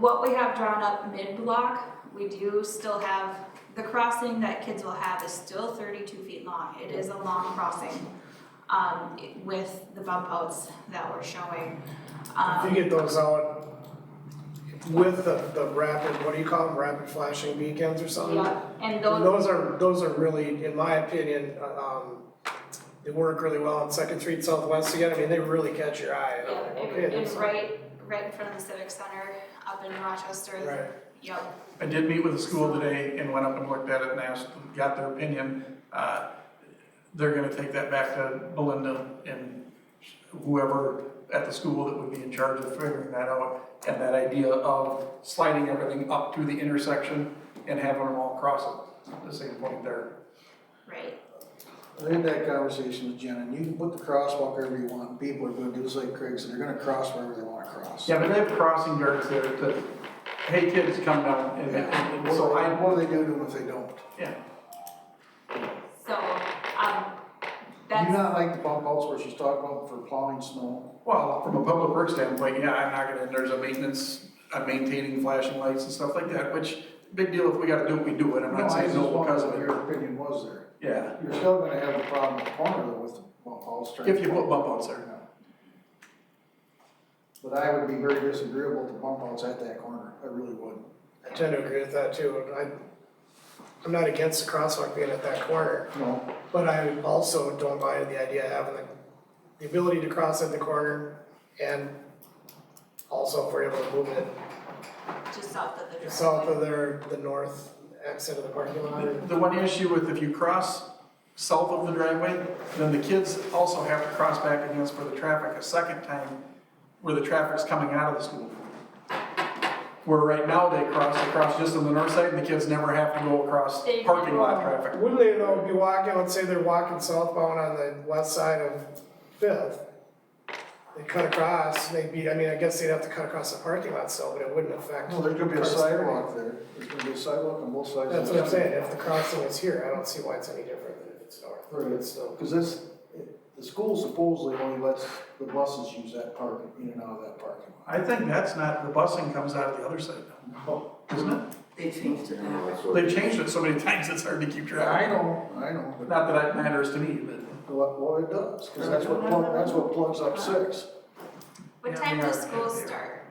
What we have drawn up mid-block, we do still have, the crossing that kids will have is still thirty-two feet long. It is a long crossing, um, with the bump outs that we're showing. If you Um, get those out with the, the rapid, what do you call them, rapid flashing beacons or something? yeah, and those, Those are, those are really, in my opinion, uh, um, they work really well on Second Street Southwest again, I mean, they really catch your eye. and I'm yeah, like, okay, it, it's that's- right, right in front of the Civic Center up in Rochester. Right, Yep, I did meet with the school today and went up and looked at it and asked, got their opinion. Uh, They're gonna take that back to Belinda and whoever at the school that would be in charge of figuring that out. And that idea of sliding everything up to the intersection and having them all cross it, the same point there. right, I had that conversation with Jen, and you can put the crosswalk wherever you want, people are gonna do just like Craig's, and they're gonna cross wherever they wanna cross. Yeah, but they have crossing guards there to, hey, kids, come down. And- and- and so I, What do they do to them if they don't? yeah. so, um, Do you that's, not like the bump outs where she's talking about for plowing snow? Well, from a public works standpoint, yeah, I'm not gonna, there's a maintenance, I'm maintaining flashing lights and stuff like that, which, big deal, if we gotta do it, we do it, I'm No, I not saying just no wondered because of what it. Your opinion was there. Yeah, You're still gonna have a problem with the corner though with the bump outs. trying if you to- put bump outs there. But I would be very disagreeable to bump outs at that corner, I really would. I tend to agree with that too, I, I'm not against the crosswalk being at that corner, No, but I also don't mind the idea of having the, the ability to cross at the corner and also if we're able to move it just south of the driveway. south of their, the north exit of the parking lot. or- The one issue with if you cross south of the driveway, then the kids also have to cross back against where the traffic a second time, where the traffic's coming out of the school. Where right now they cross, they cross just on the north side, and the kids never have to go across They- parking lot traffic. Wouldn't they though be walking, let's say they're walking southbound on the west side of Fifth? They cut across, they'd be, I mean, I guess they'd have to cut across the parking lot still, but it wouldn't affect. no, there's gonna be a cars. sidewalk there, there's gonna be a sidewalk on both sides. of That's the what I'm street. saying, if the crossing is here, I don't see why it's any different than if it's north, Right. it's still. Because this, the school supposedly only lets the buses use that parking, in and out of that parking I lot. think that's not, the busing comes out of the other side Oh, now, isn't it? They changed it now. They've changed it so many times, it's hard to keep I track. know, I know, but Not that that matters to me, but what, what it does, because that's what plug, that's what plugs up six. What Yeah, time they does are. school start?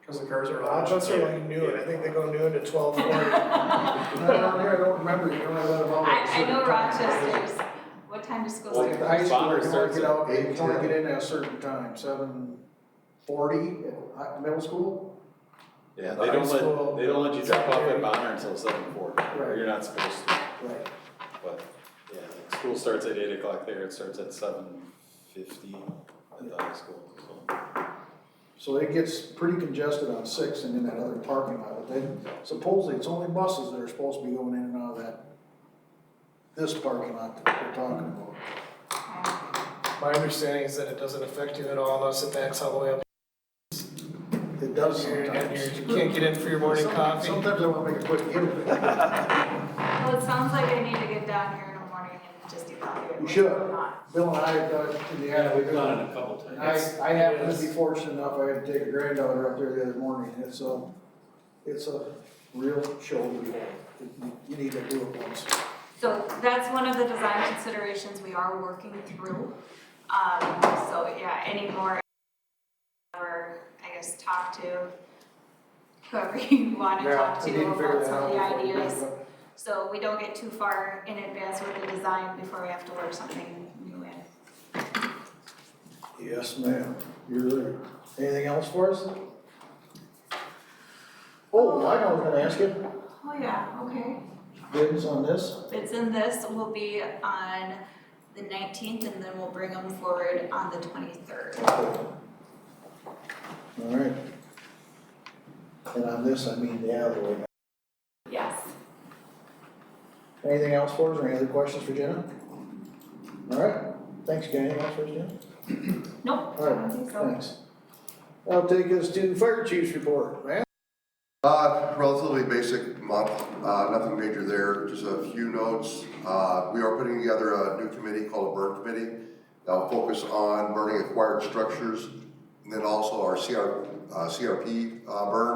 because the cars are loud. Rochester like noon, I think they go noon to twelve forty. And Down there, I don't remember, you only let them out. at a I, I certain know time. Rochester's, what time does school Like at the start? high school, Bonner you only starts get at out, you only 8:10. get in at a certain time, seven forty at hi- middle school? Yeah, The they high don't school- let, they don't let you drop off secondary. at Bonner until seven forty, Right. you're not supposed to, Right. but, yeah, like, school starts at eight o'clock there, it starts at seven fifty at the high school, so. So it gets pretty congested on six and in that other parking lot, but then supposedly it's only buses that are supposed to be going in and out of that, this parking lot that we're talking about. My understanding is that it doesn't affect you at all unless it backs all the way up. It does here and sometimes. you're- You can't get in for your morning Sometimes- coffee. Sometimes I wanna make a quick get. Well, it sounds like I need to get down here in the morning and just evaluate You what's should. going on. Bill and I have done it in the Yeah, we've afternoon. done it a couple times. I, I happened to be fortunate enough, I had to take a granddaughter up there the other morning, it's a, it's a real show to behold. You- You need to do it once. So that's one of the design considerations we are working through. Um, so yeah, any more, or I guess talk to whoever you wanna Yeah, talk we to need to figure about that some out of the before we ideas. do it. So we don't get too far in advance with the design before we have to work something new in. Yes, ma'am, you're right. Anything else for us? Oh, I know, I was gonna ask you, Oh yeah, okay. bids on this? Bits in this will be on the nineteenth and then we'll bring them forward on the twenty-third. All right. And on this, I mean the other way. Yes. Anything else for us, or any other questions for Jenna? All right, thanks, gang, anything else for us, Jenna? Nope, I All don't right, think so. thanks. That'll take us to fire chief's report, man. Uh, relatively basic month, uh, nothing major there, just a few notes. Uh, we are putting together a new committee called a burn committee. That'll focus on burning acquired structures and then also our CR, uh, CRP uh, burn.